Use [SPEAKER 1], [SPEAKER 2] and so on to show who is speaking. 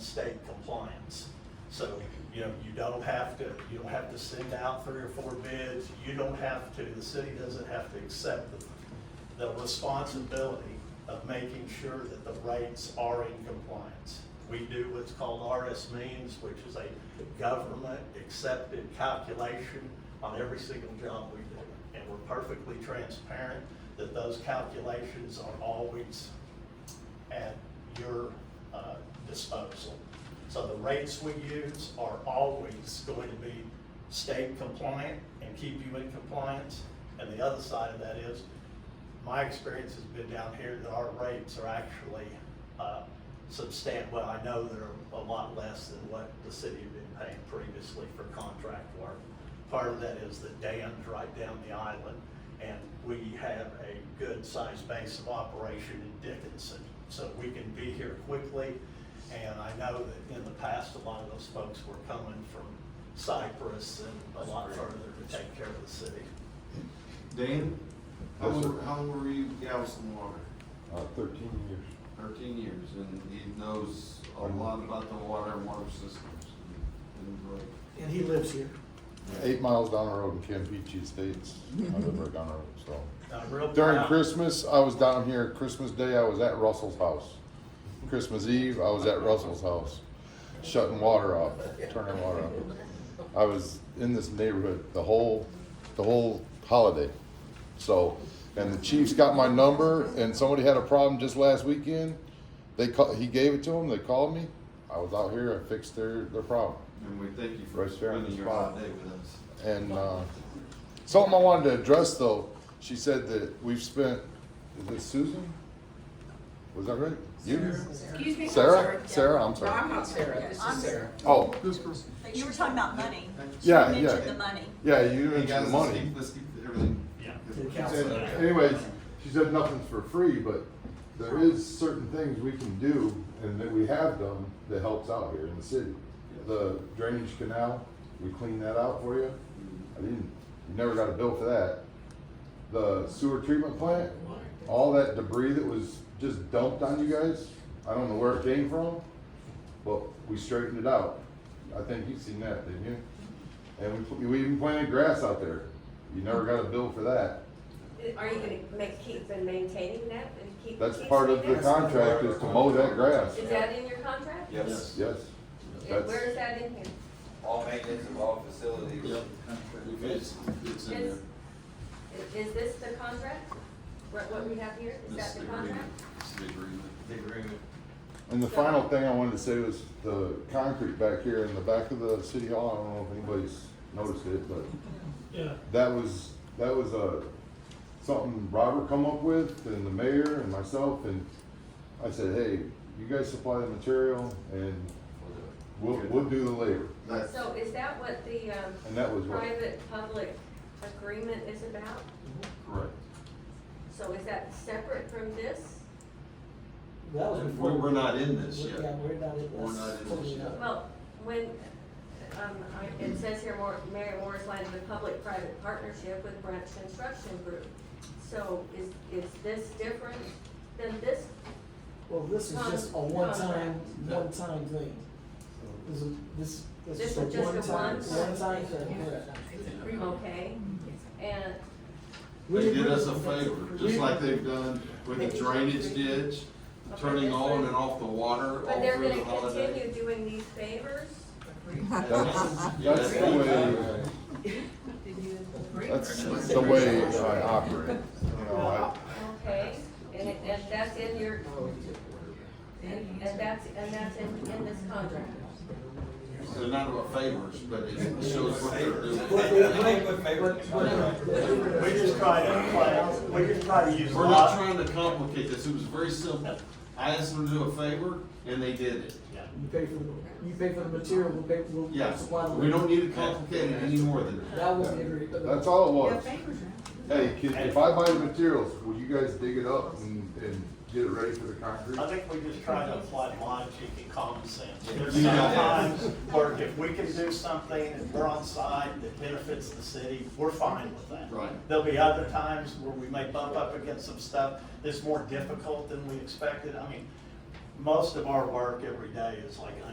[SPEAKER 1] state compliance. So, you know, you don't have to, you don't have to send out three or four bids, you don't have to, the city doesn't have to accept the, the responsibility of making sure that the rates are in compliance. We do what's called RS means, which is a government-accepted calculation on every single job we do. And we're perfectly transparent that those calculations are always at your uh, disposal. So the rates we use are always going to be state compliant and keep you in compliance. And the other side of that is, my experience has been down here that our rates are actually substantial, well, I know they're a lot less than what the city had been paying previously for contract work. Part of that is the dams right down the island, and we have a good-sized base of operation in Dickinson. So we can be here quickly, and I know that in the past, a lot of those folks were coming from Cyprus and a lot further to take care of the city.
[SPEAKER 2] Dan, how
[SPEAKER 3] Yes,
[SPEAKER 2] long,
[SPEAKER 3] sir.
[SPEAKER 2] how long were you at Galveston Water?
[SPEAKER 3] Uh, thirteen years.
[SPEAKER 2] Thirteen years, and he knows a lot about the water and water systems. and- and, uh,
[SPEAKER 4] And he lives here.
[SPEAKER 3] Eight miles down the road in Campeche Estates, I live right down the road, so.
[SPEAKER 1] And I'm real
[SPEAKER 3] During
[SPEAKER 1] proud-
[SPEAKER 3] Christmas, I was down here, Christmas Day, I was at Russell's house. Christmas Eve, I was at Russell's house, shutting water off, turning water off. I was in this neighborhood the whole, the whole holiday. So, and the Chiefs got my number, and somebody had a problem just last weekend. They call, he gave it to them, they called me, I was out here, I fixed their, their problem.
[SPEAKER 2] And we thank you for
[SPEAKER 3] Right there on the
[SPEAKER 2] spending your
[SPEAKER 3] spot.
[SPEAKER 2] holiday with us.
[SPEAKER 3] And uh, something I wanted to address though, she said that we've spent, is it Susan? Was that right? You?
[SPEAKER 5] Excuse me?
[SPEAKER 3] Sarah? Sarah, I'm
[SPEAKER 5] No, I'm
[SPEAKER 3] sorry.
[SPEAKER 5] not Sarah, this
[SPEAKER 6] I'm
[SPEAKER 5] is Sarah.
[SPEAKER 3] Oh,
[SPEAKER 6] But you were talking about money.
[SPEAKER 3] yeah,
[SPEAKER 6] You mentioned the
[SPEAKER 3] yeah.
[SPEAKER 6] money.
[SPEAKER 3] Yeah, you
[SPEAKER 2] Hey, guys,
[SPEAKER 3] mentioned
[SPEAKER 2] let's
[SPEAKER 3] money.
[SPEAKER 2] keep- Let's keep everything.
[SPEAKER 1] Yeah.
[SPEAKER 4] To the
[SPEAKER 3] And
[SPEAKER 4] council.
[SPEAKER 3] Anyways, she said nothing's for free, but there is certain things we can do and that we have done that helps out here in the city. The drainage canal, we clean that out for you. I didn't, you never got a bill for that. The sewer treatment plant, all that debris that was just dumped on you guys, I don't know where it came from, but we straightened it out. I think you've seen that, didn't you? And we, pl- we even planted grass out there. You never got a bill for that.
[SPEAKER 5] Are you gonna make, keep and maintaining that and keep?
[SPEAKER 3] That's
[SPEAKER 5] keep
[SPEAKER 3] part of the
[SPEAKER 5] doing that?
[SPEAKER 3] contract is to mow that grass.
[SPEAKER 5] Is that in your contract?
[SPEAKER 2] Yes.
[SPEAKER 3] Yes,
[SPEAKER 5] And Where
[SPEAKER 3] that's,
[SPEAKER 5] is that in here?
[SPEAKER 7] all maintenance of all facilities.
[SPEAKER 2] It's, it's in there.
[SPEAKER 5] Is, is this the contract? What, what we have here, is
[SPEAKER 2] This
[SPEAKER 5] that
[SPEAKER 2] is the
[SPEAKER 5] the
[SPEAKER 2] agreement.
[SPEAKER 5] contract?
[SPEAKER 2] It's the agreement.
[SPEAKER 7] The agreement.
[SPEAKER 3] and the final thing I wanted to say was the concrete back here in the back of the city hall, I don't know if anybody's noticed it, but
[SPEAKER 4] Yeah.
[SPEAKER 3] that was, that was a, something Robert come up with and the mayor and myself and I said, hey, you guys supply the material and we'll, we'll do the labor.
[SPEAKER 2] That's,
[SPEAKER 5] So is that what the, um,
[SPEAKER 3] And that was what,
[SPEAKER 5] private-public agreement is about?
[SPEAKER 2] correct.
[SPEAKER 5] So is that separate from this?
[SPEAKER 4] That was before.
[SPEAKER 2] We're, we're not in this
[SPEAKER 4] Yeah,
[SPEAKER 2] yet.
[SPEAKER 4] we're not in this.
[SPEAKER 2] We're not in this
[SPEAKER 4] Totally
[SPEAKER 2] yet.
[SPEAKER 4] not.
[SPEAKER 5] Well, when, um, I- it says here, Mor- Mary Morris Land is a public-private partnership with Branch Construction Group. So is, is this different than this?
[SPEAKER 4] Well, this is just a
[SPEAKER 5] Con-
[SPEAKER 4] one-time,
[SPEAKER 2] contract.
[SPEAKER 4] one-time thing. This is, this, this is a
[SPEAKER 5] This is just a
[SPEAKER 4] one-time,
[SPEAKER 5] one-time.
[SPEAKER 4] one-time thing, correct.
[SPEAKER 5] Okay, and,
[SPEAKER 4] We
[SPEAKER 2] They did
[SPEAKER 4] agree
[SPEAKER 2] us a
[SPEAKER 4] with that.
[SPEAKER 2] favor,
[SPEAKER 4] We-
[SPEAKER 2] just like they've done with the drainage ditch, the turning on and off the water all
[SPEAKER 5] but they're
[SPEAKER 2] through
[SPEAKER 5] gonna
[SPEAKER 2] the holiday.
[SPEAKER 5] continue doing these favors?
[SPEAKER 3] that's, that's the way, that's the way I operate. You know, I,
[SPEAKER 5] Okay, and, it- and that's in your, and, and that's, and that's in, in this contract?
[SPEAKER 2] They're not about favors, but it shows what they're
[SPEAKER 4] What-
[SPEAKER 2] doing.
[SPEAKER 4] what- what- what-
[SPEAKER 1] We just try to play, we just try to use
[SPEAKER 2] We're
[SPEAKER 1] logic.
[SPEAKER 2] not trying to complicate this, it was very simple. I asked them to do a favor, and they did it.
[SPEAKER 4] You pay for, the you pay for the material, we'll pay, we'll we'll
[SPEAKER 2] Yes,
[SPEAKER 4] supply the.
[SPEAKER 2] we don't need to complicate it any more than that.
[SPEAKER 4] That was the agreement.
[SPEAKER 3] That's all it was. Hey, kid, if I buy the materials, will you guys dig it up and, and get it ready for the concrete?
[SPEAKER 1] I think we just try to apply logic and common sense. There's
[SPEAKER 2] Yeah.
[SPEAKER 1] sometimes where if we can do something and we're on side that benefits the city, we're fine with that.
[SPEAKER 2] Right.
[SPEAKER 1] There'll be other times where we may bump up against some stuff that's more difficult than we expected. I mean, most of our work every day is like